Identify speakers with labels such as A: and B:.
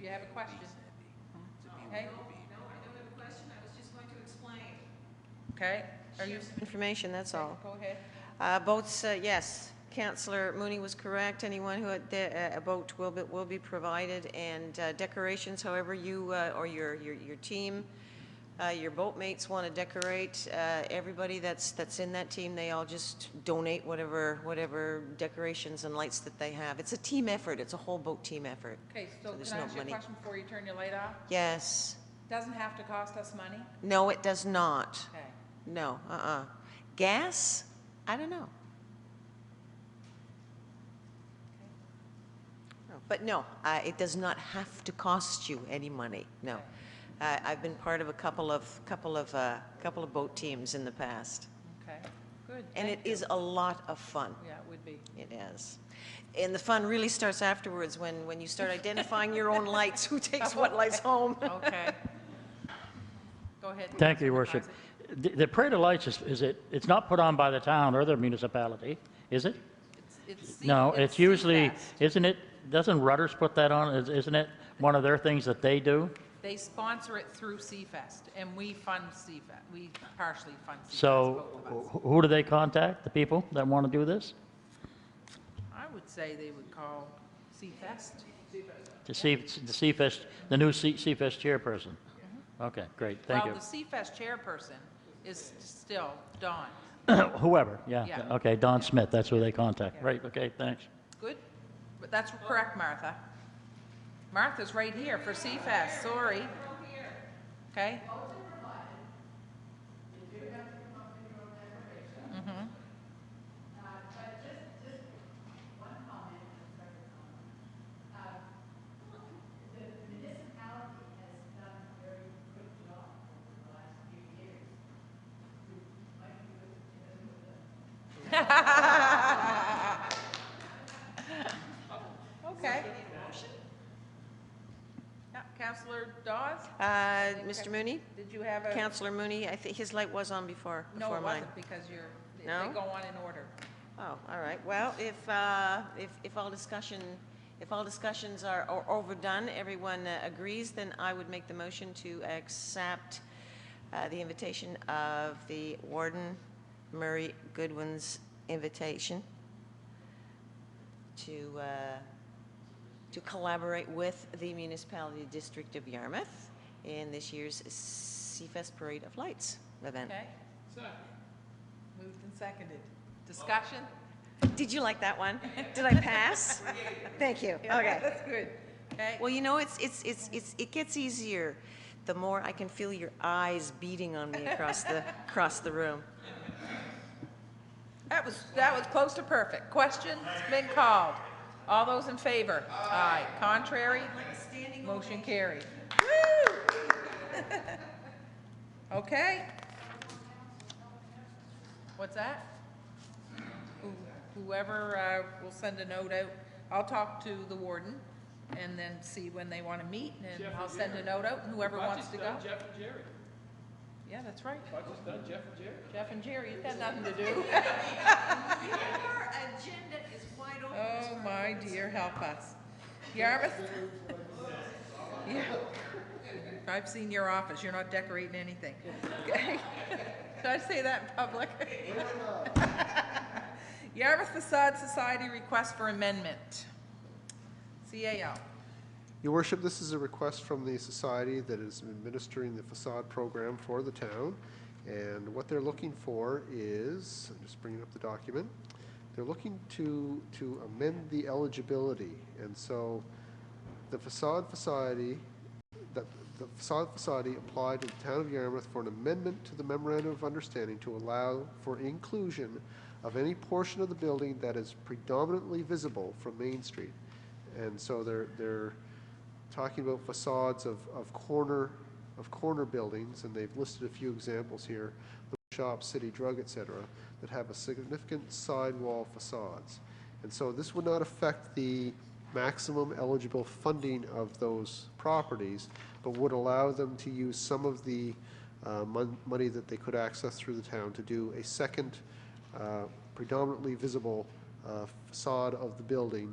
A: you have a question. Okay,
B: No, I don't have a question, I was just going to explain.
A: okay, are you,
C: Information, that's all.
A: go ahead.
C: Uh, Votes, uh, yes. Counselor Mooney was correct. Anyone who, had the- uh, a vote will be, will be provided, and uh, decorations, however you, uh, or your, your, your team, uh, your boatmates want to decorate, uh, everybody that's, that's in that team, they all just donate whatever, whatever decorations and lights that they have. It's a team effort. It's a whole boat team effort.
A: Okay, so
C: So
A: can
C: there's
A: I
C: no
A: ask you a
C: money.
A: question before you turn your light off?
C: Yes.
A: Doesn't have to cost us money?
C: No, it does not.
A: Okay,
C: No, uh-uh. Gas? I don't know. But no, uh, it does not have to cost you any money, no.
A: Okay.
C: Uh, I've been part of a couple of, couple of, uh, couple of boat teams in the past,
A: okay, good.
C: and it
A: thank you.
C: is a lot of fun.
A: Yeah, it would be.
C: It is. And the fun really starts afterwards, when, when you start identifying your own lights, who takes what lights home.
A: Okay. Go ahead.
D: Thank you,
A: Counselor
D: Your Worship.
A: Isaac.
D: The the Parade of Lights, is is it, it's not put on by the town or the municipality, is it?
A: It's- it's C-
D: No, it's usually,
A: CFAS.
D: isn't it, doesn't Rudders put that on? Is- Isn't it one of their things that they do?
A: They sponsor it through C-Fest, and we fund C-Fest, we partially fund C-Fest,
D: So
A: both of us.
D: wh- who do they contact, the people that want to do this?
A: I would say they would call C-Fest.
D: To see, to see fest the new C- CFest chairperson? Okay, great, thank
A: Well,
D: you.
A: the C-Fest chairperson is still Dawn.
D: Whoever, yeah,
A: Yeah.
D: okay, Don Smith, that's who they contact,
A: Yeah.
D: right, okay, thanks.
A: Good? But that's correct, Martha. Martha's right here for C-Fest, sorry. Okay? Okay. Yeah, Counselor Dawes,
C: Uh, Mr. Mooney?
A: did you have a?
C: Counselor Mooney, I think his light was on before,
A: Uh, No,
C: before
A: it
C: mine.
A: wasn't, because you're, they-
C: No?
A: they go on in order.
C: Oh, all right. Well, if, uh, if, if all discussion, if all discussions are are overdone, everyone uh, agrees, then I would make the motion to accept uh, the invitation of the warden, Murray Goodwin's invitation to, uh, to collaborate with the municipality district of Yarmouth in this year's Seafest Parade of Lights event.
A: Okay? Second. Moved and seconded. Discussion?
C: Did you like that one? Did I pass? Thank you. Okay.
A: That's good. Okay?
C: Well, you know, it's, it's, it's, it's, it gets easier the more I can feel your eyes beating on me across the, across the room.
A: That was, that was close to perfect. Question has been called. All those in favor? Aye. Contrary? Motion carried. Woo! Okay. What's that? Who- Whoever uh, will send a note out, I'll talk to the warden and then see when they want to meet and I'll send a note out and whoever wants to go.
E: Jeff and Jerry.
A: Yeah, that's right.
E: I just done Jeff and Jerry.
A: Jeff and Jerry, you've got nothing to do.
B: Our agenda is wide open. Ms.
A: Oh, my dear, help us. Yarmouth? Yeah. I've seen your office, you're not decorating anything. Okay. Did I say that in public? Yarmouth Facade Society request for amendment. CAO.
F: Your worship, this is a request from the society that is administering the facade program for the town. And what they're looking for is, I'm just bringing up the document, they're looking to, to amend the eligibility. And so the facade society, that the facade society applied to the town of Yarmouth for an amendment to the memorandum of understanding to allow for inclusion of any portion of the building that is predominantly visible from Main Street. And so they're, they're talking about facades of, of corner, of corner buildings, and they've listed a few examples here, the shop, city drug, et cetera, that have a significant sidewall facades. And so this would not affect the maximum eligible funding of those properties, but would allow them to use some of the uh, mon- money that they could access through the town to do a second uh, predominantly visible uh, facade of the building